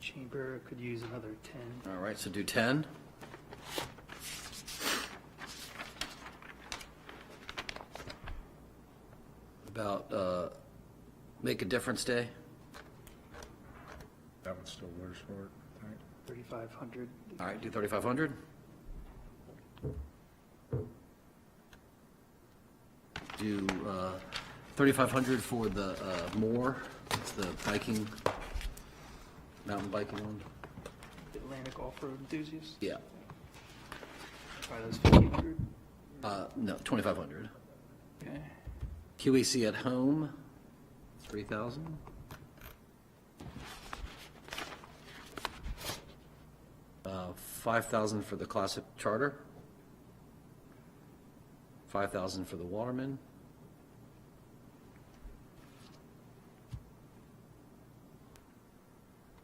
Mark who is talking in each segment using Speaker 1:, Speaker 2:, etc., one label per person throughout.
Speaker 1: Chamber could use another ten.
Speaker 2: All right, so do 10. About uh, Make a Difference Day?
Speaker 3: That one's still works for it, I think.
Speaker 1: 3,500.
Speaker 2: All right, do 3,500. Do uh, 3,500 for the uh, Moore, it's the biking, mountain biking one.
Speaker 1: Atlantic off-road enthusiasts,
Speaker 2: Yeah,
Speaker 1: try those 1,500.
Speaker 2: Uh, no, 2,500.
Speaker 1: Okay.
Speaker 2: QEC E at home, 3,000. Uh, 5,000 for the classic charter. 5,000 for the Waterman.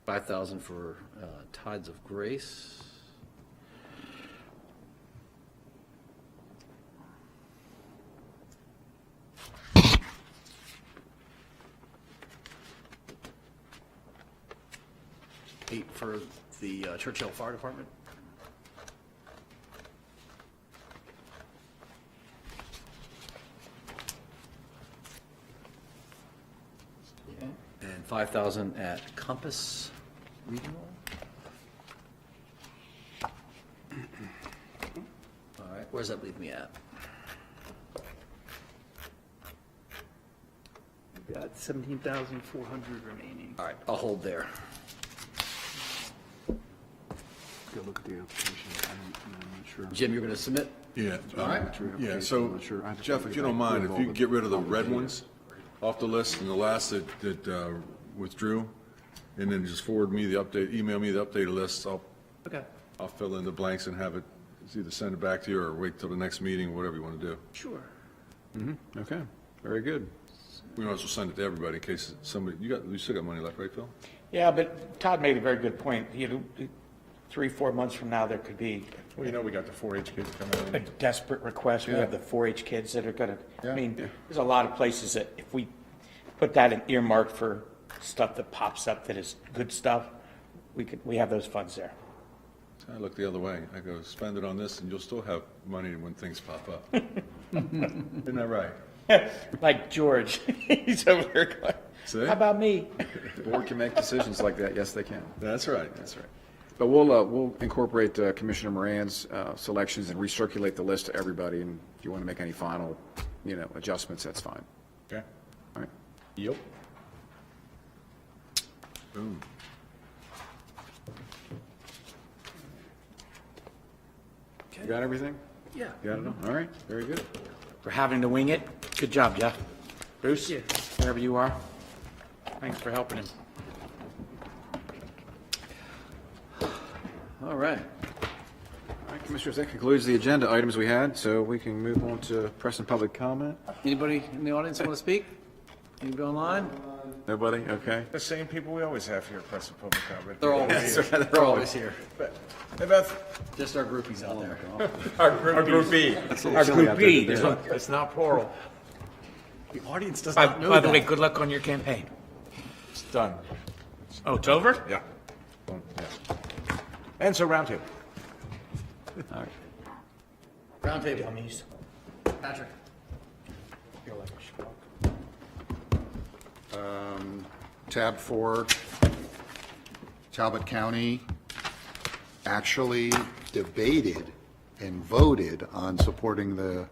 Speaker 2: Five thousand for uh, Tides of Grace. Eight for the uh, Churchill Fire Department.
Speaker 1: Okay.
Speaker 2: And five thousand at Compass Regional. All right, where's that leave me at?
Speaker 1: We've Got 17,400 remaining.
Speaker 2: All right, I'll hold there.
Speaker 4: Go look at the application. I don't, I'm not sure.
Speaker 2: Jim, you're gonna submit?
Speaker 3: Yeah.
Speaker 2: All
Speaker 3: um,
Speaker 2: right.
Speaker 4: True
Speaker 3: Yeah,
Speaker 4: application, I'm
Speaker 3: so
Speaker 4: not sure. I have to
Speaker 3: Jeff,
Speaker 4: think
Speaker 3: if you don't
Speaker 4: about
Speaker 3: mind,
Speaker 4: it.
Speaker 3: if you could get rid of the
Speaker 4: All the
Speaker 3: red
Speaker 4: data.
Speaker 3: ones off the list and the last that, that uh, withdrew, and then just forward me the update, email me the updated list, I'll,
Speaker 1: Okay,
Speaker 3: I'll fill in the blanks and have it, it's either send it back to you or wait till the next meeting, whatever you want to do.
Speaker 1: sure.
Speaker 4: Okay, very good.
Speaker 3: We might as well send it to everybody in case somebody, you got, you still got money left, right, Phil?
Speaker 5: Yeah, but Todd made a very good point. You know, three, four months from now, there could be
Speaker 6: Well, you know, we got the 4-H kids coming
Speaker 5: a
Speaker 6: in.
Speaker 5: desperate request. We have the 4-H kids that are gonna, I
Speaker 6: Yeah.
Speaker 5: mean, there's a lot of places that if we put that in earmark for stuff that pops up that is good stuff, we could, we have those funds there.
Speaker 3: I look the other way. I go, spend it on this and you'll still have money when things pop up. Isn't that right?
Speaker 5: Like George, he's over there going,
Speaker 3: See?
Speaker 5: how about me?
Speaker 4: The board can make decisions like that. Yes, they can.
Speaker 3: That's right.
Speaker 4: That's right. But we'll, uh, we'll incorporate uh, Commissioner Moran's, uh, selections and recirculate the list to everybody. And if you want to make any final, you know, adjustments, that's fine.
Speaker 6: Okay.
Speaker 4: All right.
Speaker 6: Yep.
Speaker 3: Boom.
Speaker 4: You got everything?
Speaker 2: Yeah.
Speaker 4: You got it all? All right, very good.
Speaker 5: For having to wing it. Good job, Jeff. Bruce,
Speaker 1: Yeah.
Speaker 5: wherever you are, thanks for helping him.
Speaker 2: All right.
Speaker 4: All right, Commissioners, that concludes the agenda items we had, so we can move on to press and public comment.
Speaker 2: Anybody in the audience want to speak? Anybody online?
Speaker 4: Nobody? Okay.
Speaker 6: The same people we always have here at Press and Public Comment.
Speaker 2: They're always here. They're always here.
Speaker 6: About
Speaker 2: Just our groupies out there.
Speaker 6: our group B.
Speaker 5: Our group B,
Speaker 6: It's not plural.
Speaker 2: The audience does
Speaker 5: By,
Speaker 2: not know
Speaker 5: by the way,
Speaker 2: that.
Speaker 5: good luck on your campaign.
Speaker 6: It's done.
Speaker 5: Oh, it's over?
Speaker 6: Yeah. Done, yeah. And so round two.
Speaker 2: Roundtable.
Speaker 5: Dummies.
Speaker 2: Patrick.
Speaker 5: You're like a schmuck.
Speaker 7: Tab four, Talbot County actually debated and voted on supporting the,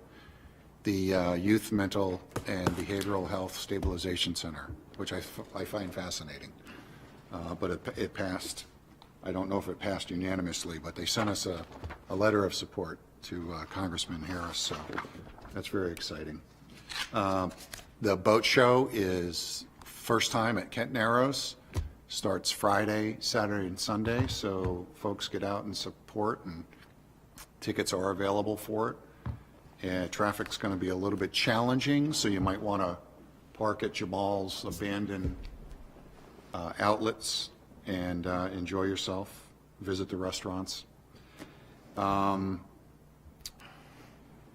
Speaker 7: the uh, Youth Mental and Behavioral Health Stabilization Center, which I, f- I find fascinating. Uh, But it, it passed, I don't know if it passed unanimously, but they sent us a, a letter of support to uh, Congressman Harris, so that's very exciting. The boat show is first time at Kent Narrows, starts Friday, Saturday, and Sunday, so folks get out and support, and tickets are available for it. And traffic's going to be a little bit challenging, so you might want to park at Jamal's abandoned uh, outlets and uh, enjoy yourself, visit the restaurants. Um,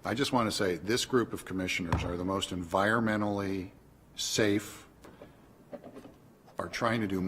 Speaker 7: I just want to say, this group of commissioners are the most environmentally safe, are trying to do